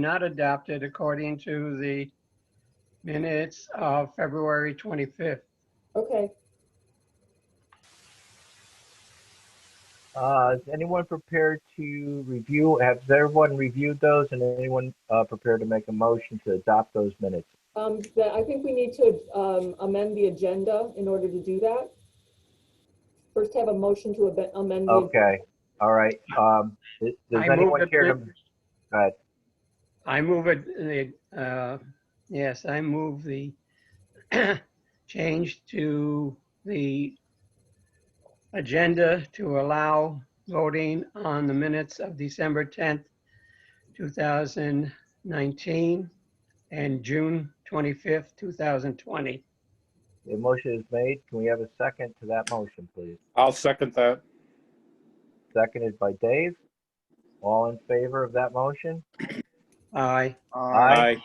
not adopted according to the minutes of February 25th. Okay, Uh, is anyone prepared to review, has everyone reviewed those and anyone, uh, prepared to make a motion to adopt those minutes? um, then I think we need to um, amend the agenda in order to do that. First have a motion to abe- amend. the- Okay, all right, um, does does I move anyone that care to? the- Go ahead. I move it, uh, yes, I move the change to the agenda to allow voting on the minutes of December 10th, 2019, and June 25th, 2020. The motion is made. Can we have a second to that motion, please? I'll second that. Seconded by Dave. All in favor of that motion? Aye. Aye.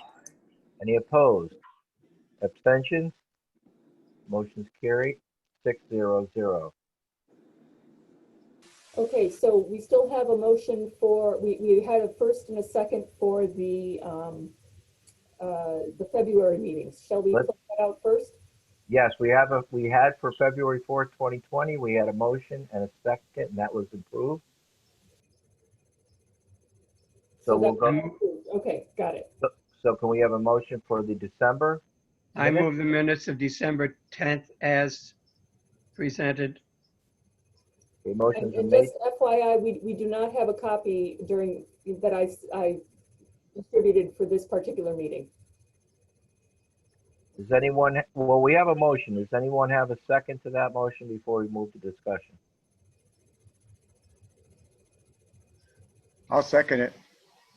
Any opposed? Abstentions? Motion's carried, six zero zero. Okay, so we still have a motion for, we, we had a first and a second for the, um, uh, the February meetings. Shall we Let's- put that out first? Yes, we have a, we had for February fourth, twenty twenty, we had a motion and a second, and that was approved. So we'll that- go, Okay, got it. so can we have a motion for the December? I Minutes? move the minutes of December 10th as presented. The And motion's been and made. just FYI, we, we do not have a copy during, that I, s- I distributed for this particular meeting. Does anyone, well, we have a motion. Does anyone have a second to that motion before we move to discussion? I'll second it.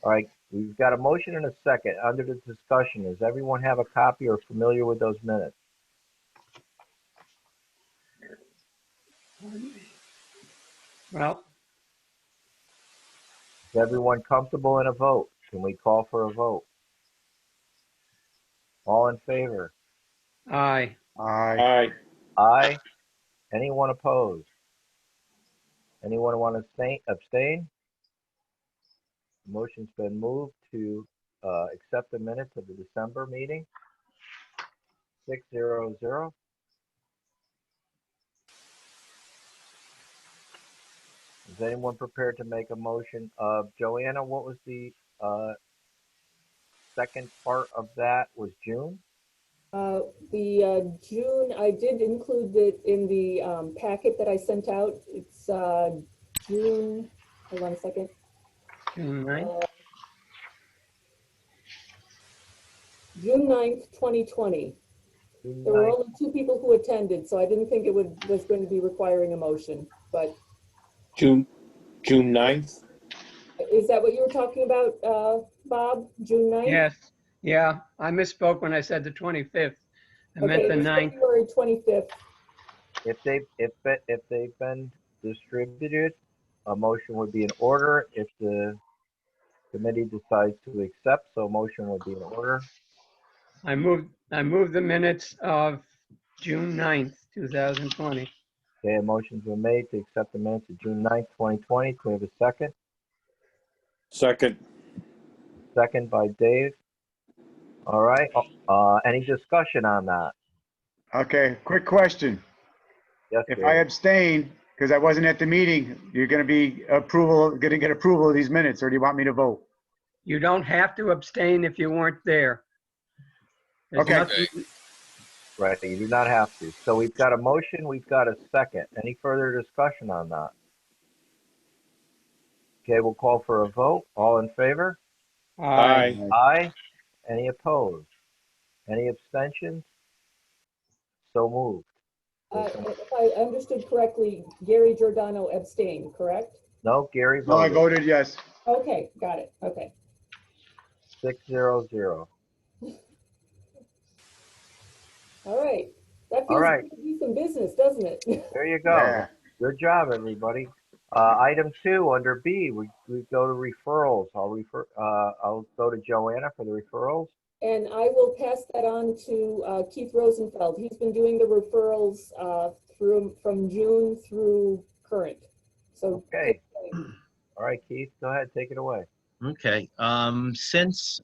All right, we've got a motion and a second. Under the discussion, does everyone have a copy or familiar with those minutes? Well, Is everyone comfortable in a vote? Can we call for a vote? All in favor? aye. Aye. Aye. Aye. Anyone opposed? Anyone want to abstain- abstain? Motion's been moved to uh, accept the minutes of the December meeting. Six zero zero. Is anyone prepared to make a motion of, Joanna, what was the uh, second part of that was June? Uh, The uh, June, I did include it in the um, packet that I sent out. It's uh, June, hold on a second. Uh, June 9th. June 9th, 2020. June There were ninth. only two people who attended, so I didn't think it would, was going to be requiring a motion. But June, June 9th? uh, is that what you were talking about, uh, Bob? June 9th? Yes, yeah, I misspoke when I said the 25th. I meant Okay, the it was 9th. February 25th. If they, if, it- if they've been distributed, a motion would be in order. If the committee decides to accept, so a motion would be in order. I moved, I moved the minutes of June 9th, 2020. Okay, a motion's been made to accept the minutes of June 9th, 2020. Can we have a second? Second. Second by Dave. All right, uh, any discussion on that? Okay, quick question. Yes, If Dave. I abstain, because I wasn't at the meeting, you're going to be approval, going to get approval of these minutes, or do you want me to vote? You don't have to abstain if you weren't there. There's Okay. nothing- Right, you do not have to. So we've got a motion, we've got a second. Any further discussion on that? Okay, we'll call for a vote. All in favor? Aye. Aye. Any opposed? Any abstentions? So moved. Uh, If I understood correctly, Gary Giordano abstained, correct? No, Gary No, I voted voted yes. Okay, got it, okay. six zero zero. All right. That All feels right. like it's some business, doesn't it? There you Yeah. go. Good job, everybody. Uh, item two, under B, we, we go to referrals. I'll refer, uh, I'll go to Joanna for the referrals. And I will pass that on to uh, Keith Rosenfeld. He's been doing the referrals uh, through, from June through current. So. Okay. All right, Keith, go ahead, take it away. Okay, um, since